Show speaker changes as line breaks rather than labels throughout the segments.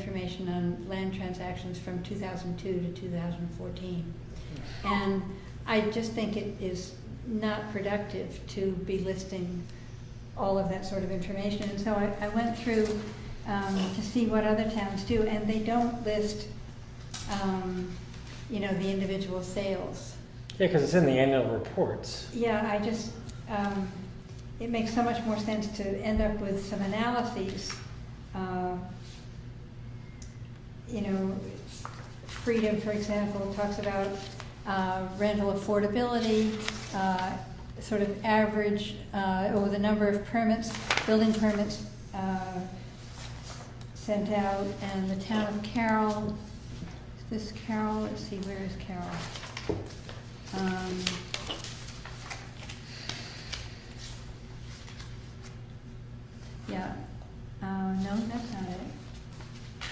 information on land transactions from 2002 to 2014. And I just think it is not productive to be listing all of that sort of information. And so I, I went through um, to see what other towns do, and they don't list, um, you know, the individual sales.
Yeah, because it's in the annual reports.
Yeah, I just, um, it makes so much more sense to end up with some analyses, uh, you know, Freedom, for example, talks about uh, rental affordability, uh, sort of average, uh, or the number of permits, building permits uh, sent out, and the town of Carroll, is this Carroll, let's see, where is Carroll? Um, Yeah, uh, no, that's not it.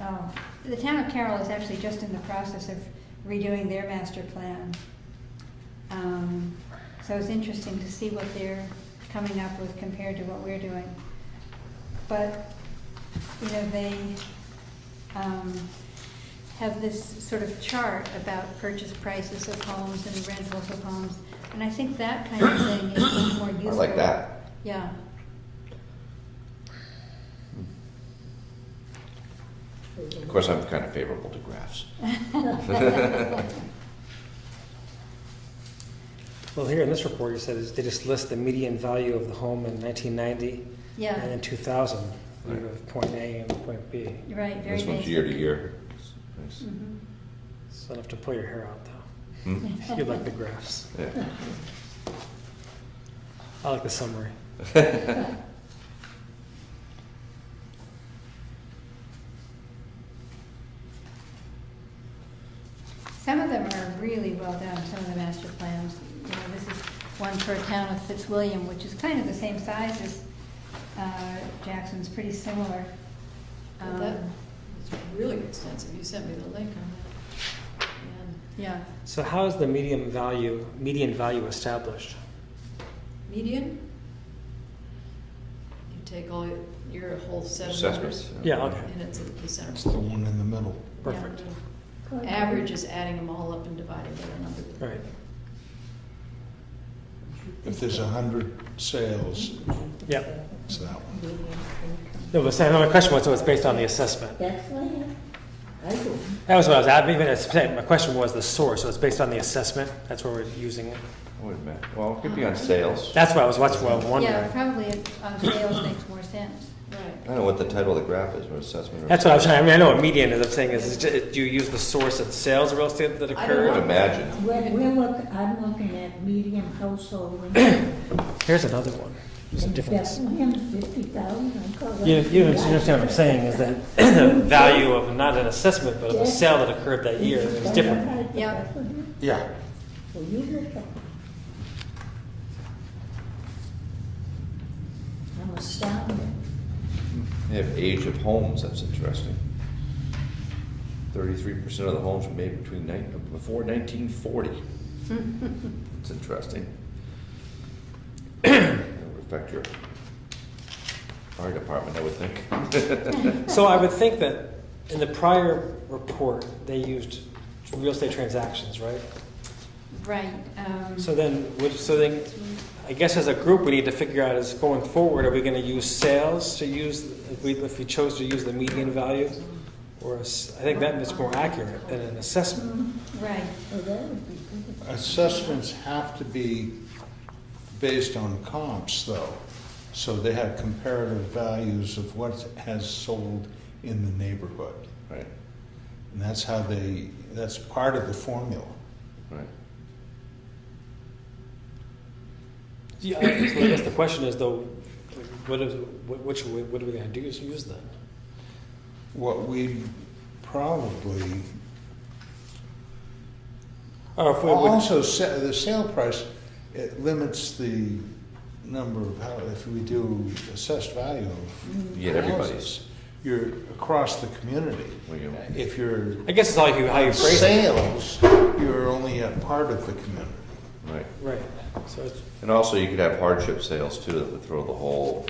Oh, the town of Carroll is actually just in the process of redoing their master plan. Um, So it's interesting to see what they're coming up with compared to what we're doing. But, you know, they, um, have this sort of chart about purchase prices of homes and rentals of homes. And I think that kind of thing is much more
I
useful.
like that.
Yeah.
Of course, I'm kind of favorable to graphs.
Well, here in this report, you said is they just list the median value of the home in 1990 and
Yeah,
in 2000. You
Right.
have point A and point B.
you're right, very
This
basic.
one's year to year. Nice.
Mhm.
It's enough to pull your hair out, though.
Hmm?
You like the graphs.
Yeah.
I like the summary.
Some of them are really well done, some of the master plans. You know, this is one for a town of Fitzwilliam, which is kind of the same size as uh, Jackson's, pretty similar.
Well, that-
Um,
It's really extensive, you sent me the link on that. And
Yeah,
So how is the median value median value established?
median? You take all your- your whole set of
Assessments.
numbers.
Yeah, okay.
And it's at the
It's
center.
the one in the middle.
Perfect.
Average is adding them all up and dividing by the number. that-
Right.
If there's a hundred sales,
Yep.
it's that one.
No, but Sam, my question was, so it's based on the assessment.
That's why I, I do.
That was what I was at. Even as I said, my question was the source, so it's based on the assessment. That's where we're using it.
Wait a minute. Well, it could be on sales. I
That's what I was watching. What I was wondering.
yeah, probably on sales makes more sense.
Right.
don't know what the title of the graph is, or assessment. or-
That's what I'm trying. I mean, I know what median is. I'm saying is, is ju- do you use the source of sales of real estate that
I don't
I would
occurred?
know.
imagine.
We're, we're look, I'm looking at medium household income.
Here's another one. There's a
And
difference.
Bethlehem, fifty thousand.
You, you understand what I'm saying is that the value of not an assessment but of a sale that occurred that year is different.
Yeah.
Yeah.
Well, you look at. I'm astounded.
They have age of homes, that's interesting. Thirty-three percent of the homes were made between nine, before nineteen forty. It's interesting. That would affect your fire department, I would think.
So I would think that in the prior report they used real estate transactions, right?
Right. um,
So then, would- so then, I guess as a group we need to figure out is going forward, are we going to use sales to use if we if we chose to use the median value, or a s- I think that is more accurate than an assessment.
Right,
Well, that would be good.
Assessments have to be based on comps, though. So they have comparative values of what has sold in the neighborhood.
Right,
And that's how they, that's part of the formula.
right.
Yeah, I- so I guess the question is though, what is, what, which, what are we gonna do is use that?
What we probably
Or if we
Al-
would,
Also, sa- the sale price, it limits the number of, how if we do assessed value of.
You get everybody's.
houses, You're across the community.
Well, you-
If you're
I guess it's all you, how you phrase it.
sales, you're only a part of the community.
Right.
Right, So it's
And also, you could have hardship sales too, that would throw the whole